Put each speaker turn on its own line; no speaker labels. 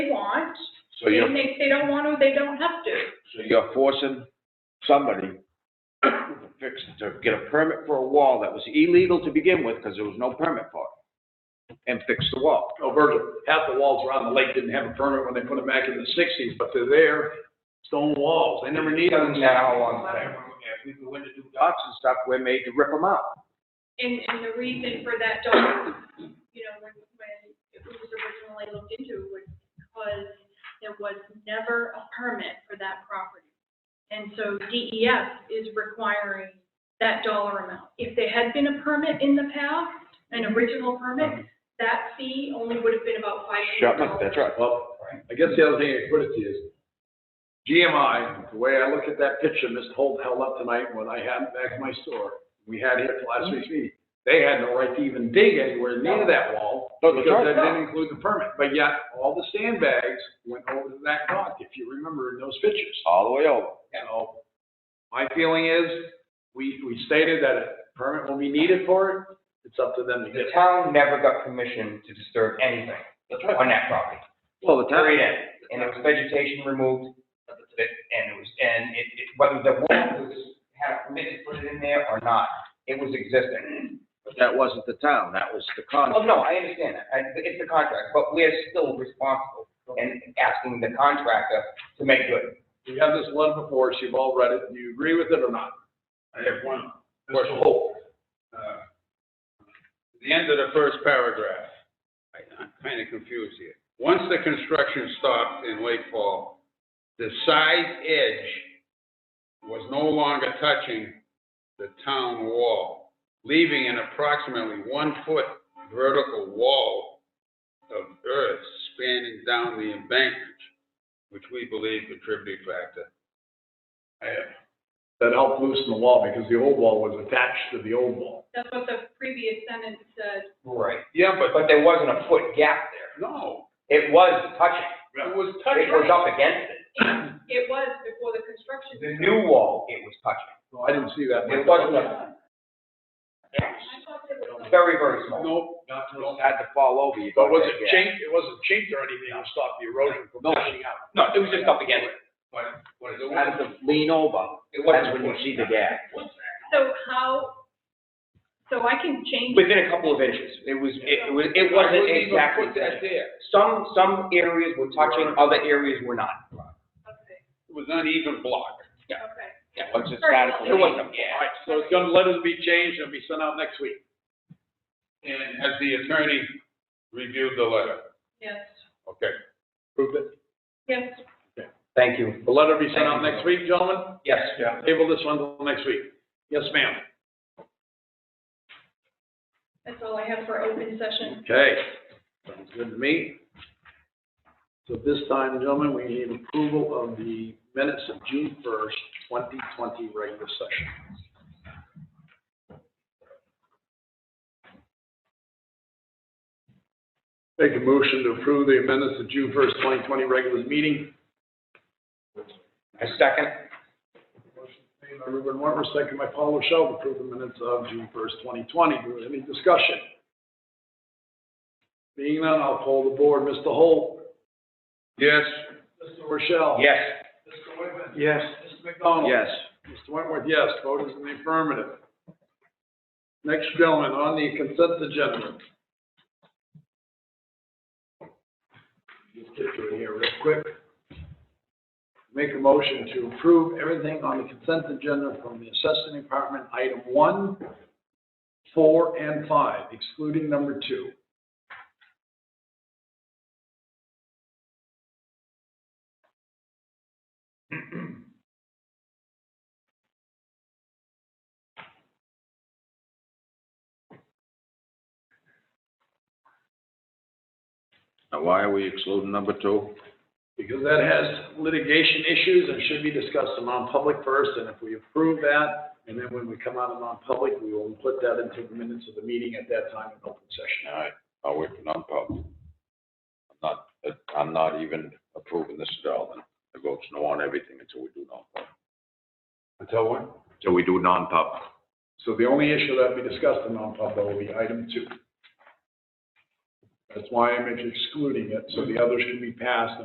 So
And
you're,
they, they don't want to, they don't have to.
so you're forcing somebody to fix, to get a permit for a wall that was illegal to begin with, because there was no permit for it, and fix the wall.
Oh, Virgil, half the walls around the lake didn't have a permit when they put them back in the sixties, but they're there, stone walls, they never needed them.
Now, on, if we go in to do dots and stuff, we're made to rip them out.
And, and the reason for that dog, you know, when, when it was originally looked into was because there was never a permit for that property. And so DES is requiring that dollar amount. If there had been a permit in the past, an original permit, that fee only would have been about five hundred
Shut up,
dollars.
that's right.
Well, I guess the other thing I put it to is, GMI, the way I look at that picture Mr. Holt held up tonight when I had it back in my store, we had it at last week's meeting, they had no right to even dig anywhere near that wall.
No, that's
Because
right.
that didn't include the permit, but yet all the sandbags went over to that dock, if you remember in those pictures.
All the way over.
So, my feeling is, we, we stated that a permit will be needed for it, it's up to them to get
The
it.
town never got permission to disturb anything on that property,
Well, the town,
period end. And there was vegetation removed, that- and it was, and it, it, whether the wall was, had a permit to put it in there or not, it was existing.
but that wasn't the town, that was the
Oh,
contract.
no, I understand that, I- it's the contract, but we're still responsible and asking the contractor to make good.
We have this letter before us, you've all read it, do you agree with it or not?
I have one.
Question.
Mr. Holt, uh, the end of the first paragraph, I- I'm kind of confused here. Once the construction stopped in Lake Fall, the side edge was no longer touching the town wall, leaving an approximately one-foot vertical wall of earth spanning down the embankment, which we believe contributed factor.
I- That helped loosen the wall, because the old wall was attached to the old wall.
That's what the previous sentence said.
Right.
Yeah,
But there wasn't a foot gap there,
No,
it was touching,
it was
it
touching.
was up against it,
And It was before the construction.
the new wall, it was touching,
No, I didn't see that.
it wasn't a.
I thought there was some-
Very, very small.
Nope.
Had to fall over. you
But
got
was
that
it
gap.
chinked, it wasn't chinked or anything to stop the erosion from
No.
pushing out?
No, it was just up against it.
But, but it
Had
was,
to lean over,
It
that's
wasn't
when you see the gap.
So how, so I can change.
within a couple of inches. It was, it was, it wasn't exactly.
Put that there,
Some, some areas were touching, other areas were not.
Okay,
it was uneven block.
okay.
Once it started to
It
lean.
wasn't.
All right, so it's gonna, letters be changed, and be sent out next week.
And has the attorney reviewed the letter?
Yes,
Okay.
Prove it.
yes.
Thank you.
The letter will be sent out next week, gentlemen?
Yes.
Table this one till next week. Yes, ma'am.
That's all I have for open session.
Okay, sounds good to me. So at this time, gentlemen, we need approval of the minutes of June first, twenty twenty regular session. Make a motion to approve the amendments of June first, twenty twenty regular meeting.
A second?
Made by Ruben Warmer, second by Paul Rochelle, approve the minutes of June first, twenty twenty. Do we have any discussion? Being none, I'll poll the board. Mr. Holt?
Yes,
Mr. Rochelle?
Yes.
Mr. Whitman? Yes. Mr. McDonald?
Yes,
Mr. Wentworth, yes. Vote is in the affirmative. Next, gentlemen, on the consent agenda. Just get through here real quick. Make a motion to approve everything on the consent agenda from the assessment department, item one, four, and five, excluding number two.
now why are we excluding number two?
because that has litigation issues and should be discussed in non-public first, and if we approve that, and then when we come out of non-public, we will put that into the minutes of the meeting at that time in open session.
All right, I'll wait for non-public. I'm not, I'm not even approving this at all, then. I vote no on everything until we do non-public.
Until when?
Until we do non-public.
So the only issue that we discussed in non-public will be item two. That's why I'm excluding it, so the others can be passed